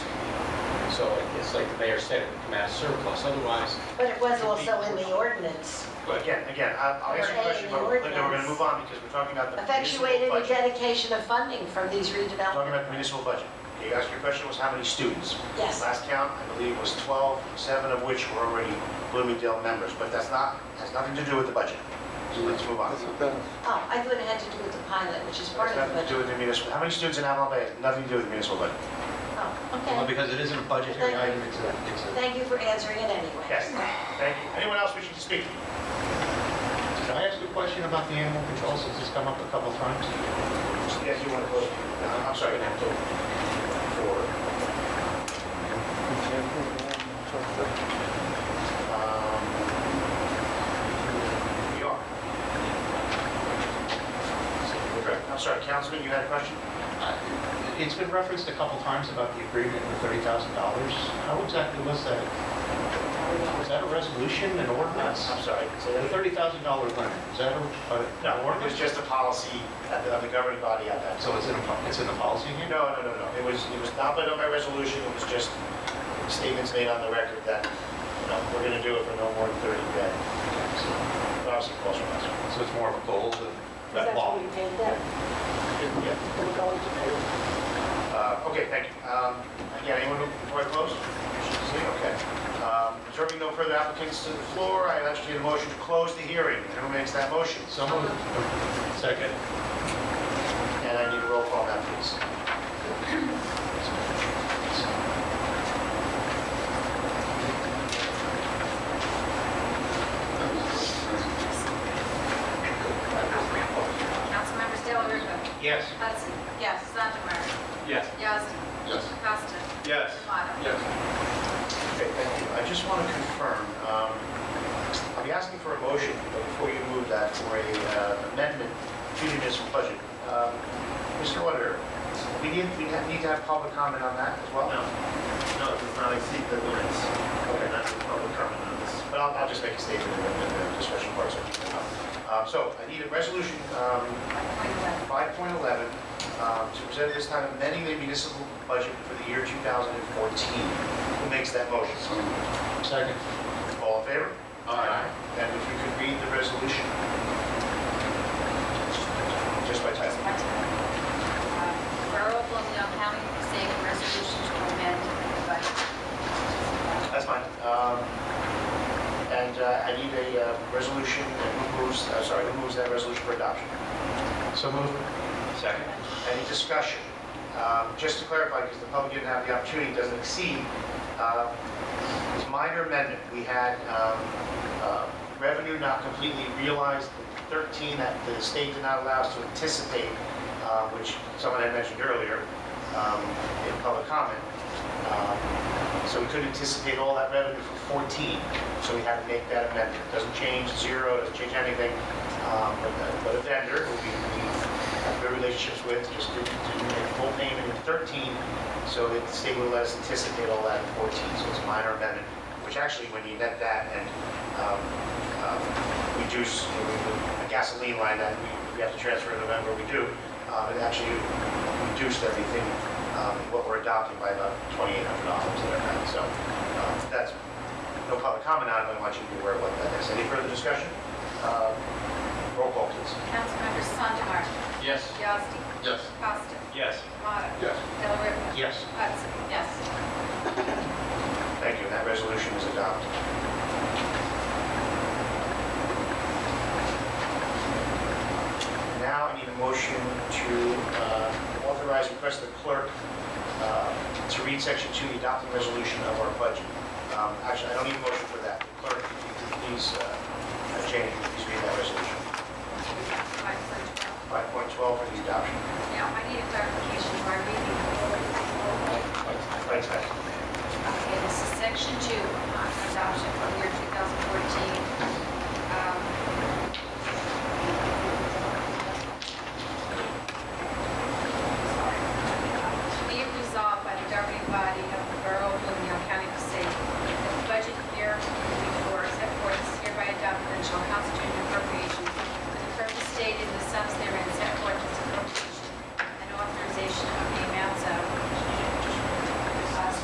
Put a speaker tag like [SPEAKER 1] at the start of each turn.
[SPEAKER 1] so it's like the mayor said, it would come out of surplus, otherwise,
[SPEAKER 2] But it was also in the ordinance,
[SPEAKER 1] but
[SPEAKER 3] Again, again, I- I'll answer your question, but Linda, we're going to move on because we're talking about the municipal
[SPEAKER 2] effectuated a
[SPEAKER 3] budget.
[SPEAKER 2] dedication of funding from these
[SPEAKER 3] We're Talking
[SPEAKER 2] redevelopment.
[SPEAKER 3] about the municipal budget. Okay, You asked your question was how many students?
[SPEAKER 2] Yes.
[SPEAKER 3] Last count, I believe, was 12, seven of which were already Bloomingdale members, but that's not, has nothing to do with the budget. So let's move on.
[SPEAKER 4] That's what that is.
[SPEAKER 2] Oh, I thought it had to do with the pilot, which is part
[SPEAKER 3] That's
[SPEAKER 2] of the
[SPEAKER 3] nothing to do
[SPEAKER 2] budget.
[SPEAKER 3] with the municipal, how many students in Avalon Bay has nothing to do with the municipal budget?
[SPEAKER 2] Oh,
[SPEAKER 1] Well,
[SPEAKER 2] okay.
[SPEAKER 1] because it isn't a budgetary item, it's a, it's a,
[SPEAKER 2] Thank you for answering it anyway.
[SPEAKER 3] Yes, thank you. Anyone else wishing to speak?
[SPEAKER 1] can I ask you a question about the animal control, since it's come up a couple times?
[SPEAKER 3] Yes, you want to close? I'm sorry. For, um, we are. Correct. I'm sorry, Councilman, you had a question?
[SPEAKER 1] Uh, It's been referenced a couple times about the agreement with $30,000. How exactly was that? Was that a resolution, an ordinance?
[SPEAKER 3] I'm sorry.
[SPEAKER 1] The $30,000 limit, is that a, a-
[SPEAKER 3] No, it was just a policy at the- of the governing body at that time.
[SPEAKER 1] so it's in, a po- it's in the policy again?
[SPEAKER 3] No, no, no, no. It was, it was not by by resolution, it was just statements made on the record that, you know, we're going to do it for no more than 30 days.
[SPEAKER 1] So
[SPEAKER 3] Obviously, calls for us.
[SPEAKER 1] so it's more of a goal than
[SPEAKER 5] That's
[SPEAKER 1] that law?
[SPEAKER 5] what we paid them,
[SPEAKER 3] Yeah.
[SPEAKER 5] for the college to pay.
[SPEAKER 3] Uh, Okay, thank you. Um, Again, anyone who- before I close? See, Okay. Um, Observing no further applicants to the floor, I entertain a motion to close the hearing. Who makes that motion?
[SPEAKER 1] So moved. Second.
[SPEAKER 3] And I need a roll call now, please.
[SPEAKER 6] Councilmembers Dale Ripa,
[SPEAKER 3] Yes.
[SPEAKER 6] Hudson. Yes. Sondemire.
[SPEAKER 1] Yes.
[SPEAKER 6] Yazdi.
[SPEAKER 4] Yes.
[SPEAKER 6] Costa.
[SPEAKER 3] Yes.
[SPEAKER 6] Demoto.
[SPEAKER 4] Yes.
[SPEAKER 3] Okay, thank you. I just want to confirm, um, I'll be asking for a motion but before you move that for a uh, amendment to the municipal budget. Um, Mr. Auditor, we need, we have- need to have public comment on that as well?
[SPEAKER 7] No, no, it does not exceed the limits. Okay, that's the public comment on this.
[SPEAKER 3] But I'll, I'll just make a statement in the- in the discussion part, so you can help. Um, So I need a resolution, um, 5.11, um, to present at this time amending the municipal budget for the year 2014. Who makes that motion?
[SPEAKER 1] Second.
[SPEAKER 3] All in favor?
[SPEAKER 4] Aye.
[SPEAKER 3] And if you could read the resolution. Just by title.
[SPEAKER 6] Borough of Bloomingdale County, state resolution to amend the budget.
[SPEAKER 3] That's fine. Um, And uh, I need a uh, resolution, and who moves, uh, sorry, who moves that resolution for adoption?
[SPEAKER 1] So moved. Second.
[SPEAKER 3] Any discussion? Um, Just to clarify, because the public didn't have the opportunity, it doesn't exceed, uh, this minor amendment, we had um, uh, revenue not completely realized, 13 that the state did not allow us to anticipate, uh, which someone had mentioned earlier um, in public comment. Um, So we couldn't anticipate all that revenue for 14, so we had to make that amendment. Doesn't change zero, doesn't change anything, um, but but a vendor who we we have good relationships with, just didn't didn't make full payment in 13, so that the state would let us anticipate all that in 14, so it's a minor amendment, which actually, when you net that and um, um, reduce you know, the gasoline line that we- we have to transfer in November, we do, um, it actually reduced everything, um, what we're adopting by about $2,800 there, right? so um, that's, no public comment on it, but I want you to be aware of what that is. Any further discussion? Uh, Roll call, please.
[SPEAKER 6] Councilmembers Sondemire.
[SPEAKER 4] Yes.
[SPEAKER 6] Yazdi.
[SPEAKER 4] Yes.
[SPEAKER 6] Costa.
[SPEAKER 7] Yes.
[SPEAKER 6] Demoto.
[SPEAKER 4] Yes.
[SPEAKER 6] Del Ripa.
[SPEAKER 1] Yes.
[SPEAKER 6] Hudson. Yes.
[SPEAKER 3] Thank you, and that resolution is adopted. Now I need a motion to uh, authorize, request the clerk uh, to read section two, the adopting resolution of our budget. Um, Actually, I don't need a motion for that. Clerk, if you could please, uh, uh, Jane, if you could please read that resolution.
[SPEAKER 6] Five, four, twelve.
[SPEAKER 3] 5.12 for the adoption.
[SPEAKER 6] uh, Now, I need a clar- Um, uh,